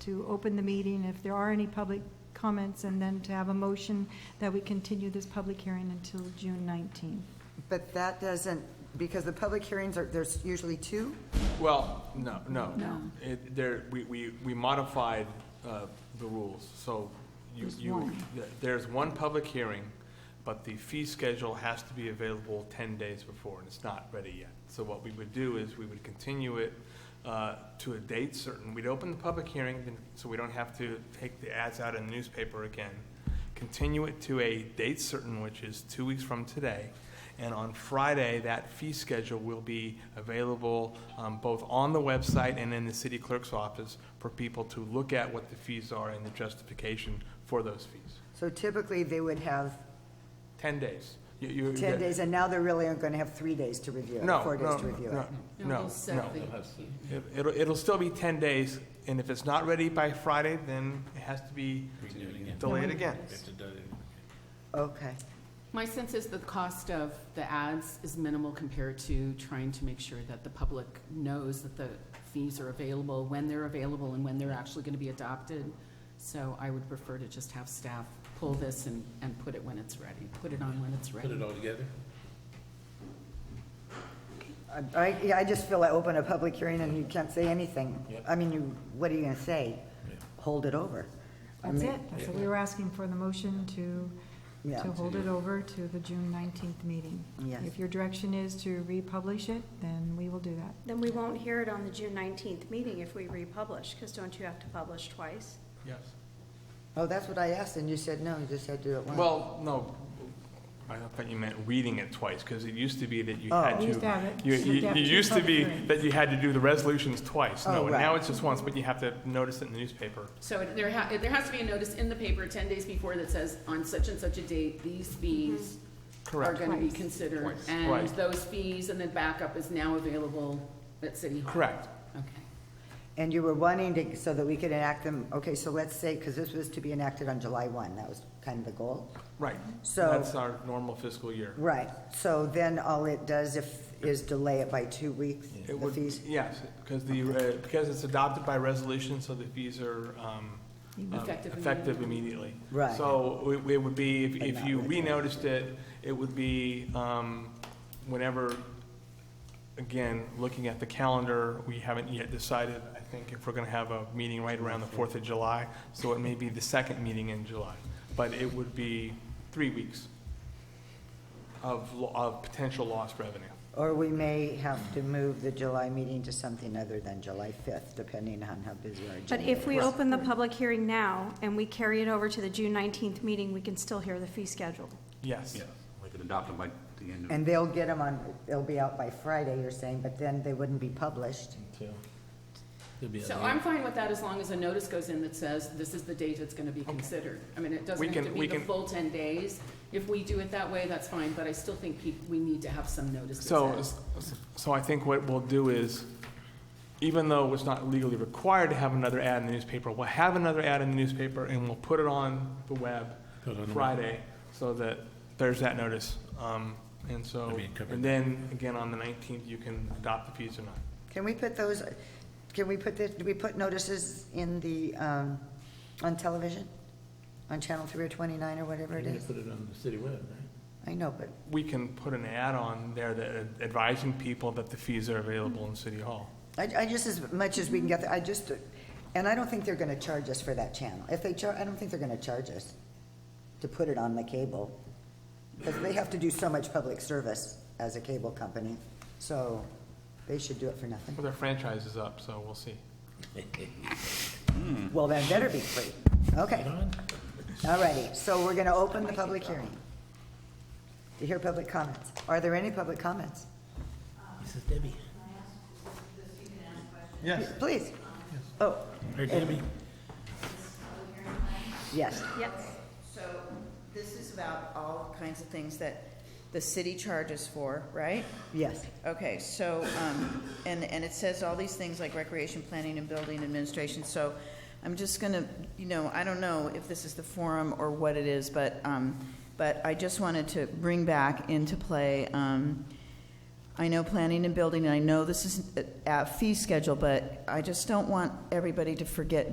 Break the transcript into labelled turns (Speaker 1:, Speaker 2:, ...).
Speaker 1: to open the meeting if there are any public comments, and then to have a motion that we continue this public hearing until June 19th.
Speaker 2: But that doesn't, because the public hearings are, there's usually two?
Speaker 3: Well, no, no.
Speaker 4: No.
Speaker 3: It, there, we, we, we modified, uh, the rules, so you,
Speaker 4: There's
Speaker 3: you,
Speaker 4: one.
Speaker 3: th- there's one public hearing, but the fee schedule has to be available ten days before, and it's not ready yet. So what we would do is we would continue it, uh, to a date certain. We'd open the public hearing, then- so we don't have to take the ads out in the newspaper again. Continue it to a date certain, which is two weeks from today. And on Friday, that fee schedule will be available um, both on the website and in the city clerk's office for people to look at what the fees are and the justification for those fees.
Speaker 2: So typically, they would have
Speaker 3: 10 days. You- you-
Speaker 2: 10 days, and now they're really going to have three days to review it,
Speaker 3: No,
Speaker 2: four
Speaker 3: no,
Speaker 2: days to review
Speaker 3: no,
Speaker 2: it.
Speaker 3: No, no, no.
Speaker 4: Exactly.
Speaker 3: It- It'll, it'll still be 10 days, and if it's not ready by Friday, then it has to be delayed again.
Speaker 2: Okay.
Speaker 4: My sense is the cost of the ads is minimal compared to trying to make sure that the public knows that the fees are available, when they're available, and when they're actually going to be adopted. So I would prefer to just have staff pull this and, and put it when it's ready, put it on when it's
Speaker 5: Put it
Speaker 4: ready.
Speaker 5: all together?
Speaker 2: I- I, yeah, I just feel I open a public hearing and you can't say anything. I mean, you, what are you going to say? Hold it over. I
Speaker 1: That's
Speaker 2: mean,
Speaker 1: it. That's what we were asking for, the motion to,
Speaker 2: Yeah.
Speaker 1: to hold it over to the June 19th meeting.
Speaker 2: Yes.
Speaker 1: If your direction is to republish it, then we will do that.
Speaker 6: Then we won't hear it on the June nineteenth meeting if we republish, because don't you have to publish twice?
Speaker 3: Yes.
Speaker 2: Oh, that's what I asked, and you said no, you just had to do it once.
Speaker 3: Well, no, I thought you meant reading it twice, because it used to be that you
Speaker 2: Oh.
Speaker 3: had
Speaker 1: We
Speaker 3: to.
Speaker 1: used to have it.
Speaker 3: You,
Speaker 1: We
Speaker 3: you,
Speaker 1: have
Speaker 3: you
Speaker 1: two
Speaker 3: used to
Speaker 1: public
Speaker 3: be
Speaker 1: hearings.
Speaker 3: that you had to do the resolutions twice,
Speaker 2: Oh,
Speaker 3: no, and
Speaker 2: right.
Speaker 3: now it's just once, but you have to notice it in the newspaper.
Speaker 4: So it- there ha, there has to be a notice in the paper ten days before that says, on such and such a date, these fees are
Speaker 3: Correct.
Speaker 4: going to be
Speaker 1: Twice.
Speaker 4: considered.
Speaker 3: Twice.
Speaker 4: And
Speaker 3: Right.
Speaker 4: those fees and the backup is now available at City Hall.
Speaker 3: Correct.
Speaker 4: Okay.
Speaker 2: And you were wanting to, so that we could enact them, okay, so let's say, because this was to be enacted on July 1, that was kind of the goal.
Speaker 3: Right.
Speaker 2: So-
Speaker 3: That's our normal fiscal year.
Speaker 2: Right, so then all it does if, is delay it by two weeks,
Speaker 3: It
Speaker 2: the
Speaker 3: would,
Speaker 2: fees?
Speaker 3: yes, because the, uh, because it's adopted by resolution, so the fees are um, um,
Speaker 4: Effective
Speaker 3: effective immediately.
Speaker 2: Right.
Speaker 3: So it it would be, if-
Speaker 2: But
Speaker 3: if
Speaker 2: not
Speaker 3: you
Speaker 2: retroactive.
Speaker 3: renoticed it, it would be um, whenever, again, looking at the calendar, we haven't yet decided, I think, if we're going to have a meeting right around the 4th of July, so it may be the second meeting in July, but it would be three weeks of, lo- of potential lost revenue.
Speaker 2: Or we may have to move the July meeting to something other than July 5th, depending on how busy our
Speaker 6: But
Speaker 2: agenda is.
Speaker 6: if we open the public hearing now and we carry it over to the June nineteenth meeting, we can still hear the fee schedule.
Speaker 3: Yes.
Speaker 7: We could adopt them by the end of,
Speaker 2: And they'll get them on, they'll be out by Friday, you're saying, but then they wouldn't be published.
Speaker 4: So I'm fine with that as long as a notice goes in that says, this is the date it's gonna be considered. I mean, it
Speaker 3: We
Speaker 4: doesn't
Speaker 3: can-
Speaker 4: have to
Speaker 3: we
Speaker 4: be the
Speaker 3: can-
Speaker 4: full ten days. If we do it that way, that's fine, but I still think peop- we need to have some notice that
Speaker 3: So,
Speaker 4: says-
Speaker 3: so I think what we'll do is, even though it's not legally required to have another ad in the newspaper, we'll have another ad in the newspaper and we'll put it on the web
Speaker 5: Put it on the web.
Speaker 3: Friday, so that there's that notice. Um, And
Speaker 5: I
Speaker 3: so,
Speaker 5: mean, cover-
Speaker 3: and then, again, on the 19th, you can adopt the fees or not.
Speaker 2: Can we put those, can we put this, do we put notices in the, um, on television? On Channel 3 or 29 or whatever it is?
Speaker 5: Put it on the city web, right?
Speaker 2: I know, but,
Speaker 3: We can put an ad on there that advising people that the fees are available in City Hall.
Speaker 2: I, I just, as much as we can get, the- I just, and I don't think they're gonna charge us for that channel. If they char, I don't think they're gonna charge us to put it on the cable. Because they have to do so much public service as a cable company, so they should do it for nothing.
Speaker 3: Well, their franchise is up, so we'll see.
Speaker 2: Well, then it better be free. Okay. All righty, so we're gonna open the public hearing. To hear public comments. Are there any public comments?
Speaker 5: This is Debbie.
Speaker 3: Yes.
Speaker 2: Please. Oh,
Speaker 5: Hey, Debbie.
Speaker 2: yes.
Speaker 6: Yes.
Speaker 8: So this is about all kinds of things that the city charges for, right?
Speaker 2: Yes.
Speaker 8: Okay, so, um, and, and it says all these things like recreation, planning, and building administration, so I'm just gonna, you know, I don't know if this is the forum or what it is, but, um, but I just wanted to bring back into play, um, I know planning and building, and I know this is a- a fee schedule, but I just don't want everybody to forget